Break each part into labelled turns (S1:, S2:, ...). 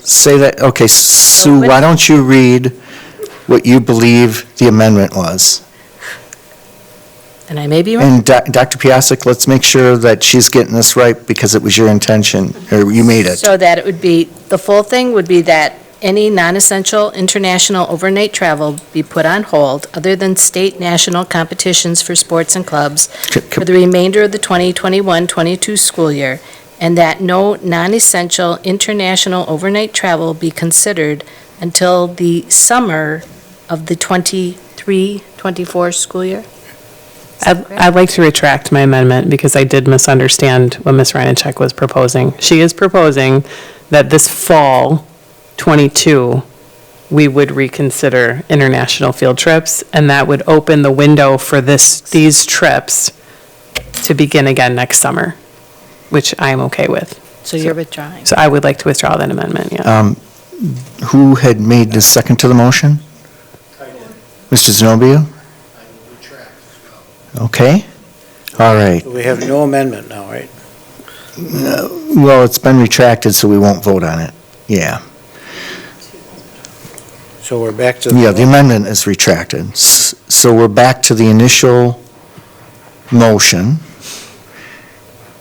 S1: Say that, okay, Sue, why don't you read what you believe the amendment was?
S2: And I may be wrong.
S1: And Doc- Dr. Piasek, let's make sure that she's getting this right because it was your intention, or you made it.
S2: So that it would be, the full thing would be that any non-essential international overnight travel be put on hold other than state national competitions for sports and clubs
S1: C-
S2: for
S1: c-
S2: the remainder of the 2021-22 school year, and that no non-essential international overnight travel be considered until the summer of the 23-24 school year?
S3: I'd I'd like to retract my amendment because I did misunderstand what Ms. Ryanchek was proposing. She is proposing that this fall, '22, we would reconsider international field trips, and that would open the window for this, these trips to begin again next summer, which I am okay with.
S2: So you're withdrawing.
S3: So I would like to withdraw that amendment, yeah.
S1: Um, Who had made the second to the motion? Mr. Zenobia? Okay, all right.
S4: We have no amendment now, right?
S1: Well, it's been retracted, so we won't vote on it. Yeah,
S4: So we're back to.
S1: yeah, the amendment is retracted. S- So we're back to the initial motion.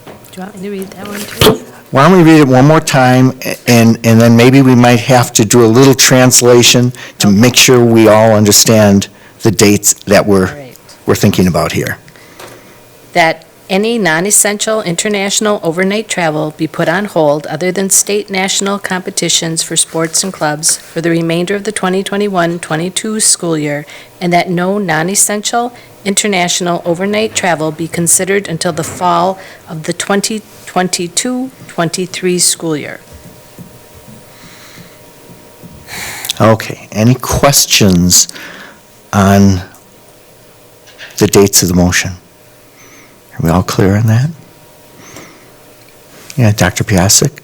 S2: Do you want me to read that one too?
S1: Why don't we read it one more time, a- and, and then maybe we might have to do a little translation to make sure we all understand the dates that
S2: All
S1: we're,
S2: right.
S1: we're thinking about here.
S2: that any non-essential international overnight travel be put on hold other than state national competitions for sports and clubs for the remainder of the 2021-22 school year, and that no non-essential international overnight travel be considered until the fall of the 2022-23 school year.
S1: Okay, any questions on the dates of the motion? Are we all clear on that? Yeah, Dr. Piasek?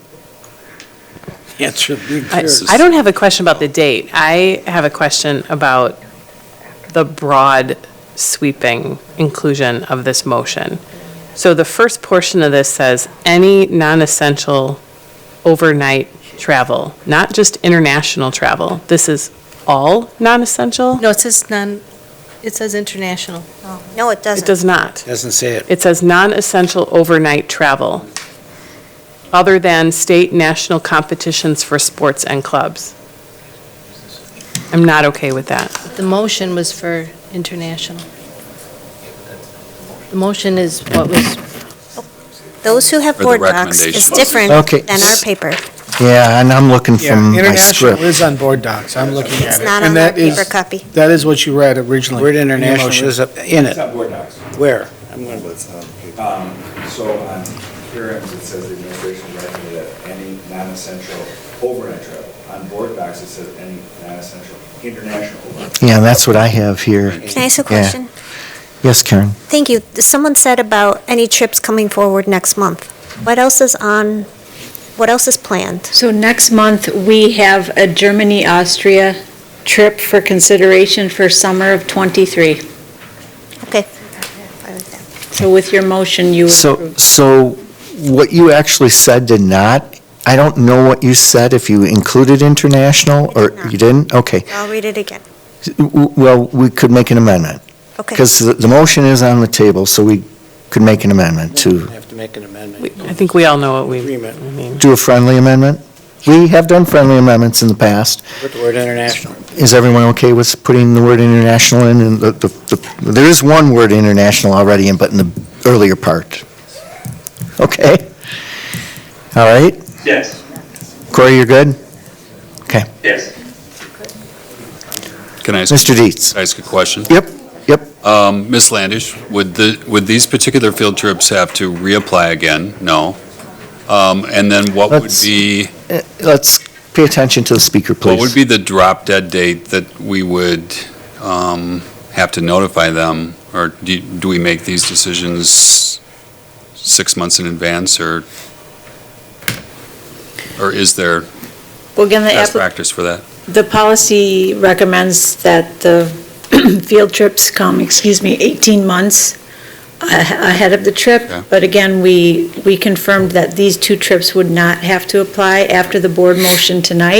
S4: Answer, be
S3: I
S4: clear.
S3: I don't have a question about the date. I have a question about the broad sweeping inclusion of this motion. So the first portion of this says, any non-essential overnight travel, not just international travel. This is all non-essential?
S2: No, it says non, it says international.
S5: No, it
S3: It
S5: doesn't.
S3: does not.
S4: Doesn't say it.
S3: It says non-essential overnight travel, other than state national competitions for sports and clubs. I'm not okay with that.
S2: The motion was for international. The motion is what was
S5: Those who have
S6: Or the
S5: board docs is
S6: recommendations.
S5: different
S1: Okay.
S5: than our paper.
S1: Yeah, and I'm looking
S7: Yeah,
S1: from my
S7: international
S1: script.
S7: is on board docs, I'm looking at
S5: It's
S7: it.
S5: not
S7: and
S5: on our
S7: that is-
S5: paper copy.
S7: That is what you read originally.
S4: Word
S7: in your
S4: international
S7: motion.
S4: is up- in it.
S8: It's on board docs.
S4: Where?
S8: Um, So on hearings, it says the administration recommended that any non-essential overnight travel. On board docs, it says any non-essential international overnight.
S1: Yeah, that's what I have here.
S5: Can I ask
S1: Yeah.
S5: a question?
S1: Yes, Karen?
S5: Thank you. Someone said about any trips coming forward next month. What else is on, what else is planned?
S9: So next month, we have a Germany-Austria trip for consideration for summer of '23.
S5: Okay.
S9: So with your motion, you
S1: So,
S9: approve.
S1: so what you actually said did not, I don't know what you said, if you included international,
S5: I
S1: or
S5: did not.
S1: you didn't? Okay.
S5: I'll read it again.
S1: W- Well, we could make an amendment,
S5: Okay.
S1: because the, the motion is on the table, so we could make an amendment to,
S4: Have to make an
S3: We-
S4: amendment.
S3: I think we all know what we, I
S4: Agreement.
S3: mean,
S1: do a friendly amendment. We have done friendly amendments in the past.
S4: Put the word international.
S1: Is everyone okay with putting the word international in? And the, the, the- there is one word international already in, but in the earlier part. Okay? All right?
S10: Yes,
S1: Corey, you're good? Okay.
S10: yes.
S6: Can I ask?
S1: Mr. Dietz.
S6: Can I ask a question?
S1: Yep, yep.
S6: Um, Ms. Landish, would the, would these particular field trips have to reapply again? No. Um, and then what would
S1: Let's-
S6: be,
S1: Uh, Let's pay attention to the speaker,
S6: what would
S1: please.
S6: be the drop dead date that we would, um, have to notify them? Or do, do we make these decisions six months in advance or, or is there
S9: Well, again, the
S6: best
S9: app-
S6: practice for that?
S9: the policy recommends that the field trips come, excuse me, 18 months a- ahead of the trip.
S6: Okay.
S9: But again, we, we confirmed that these two trips would not have to apply after the board motion tonight.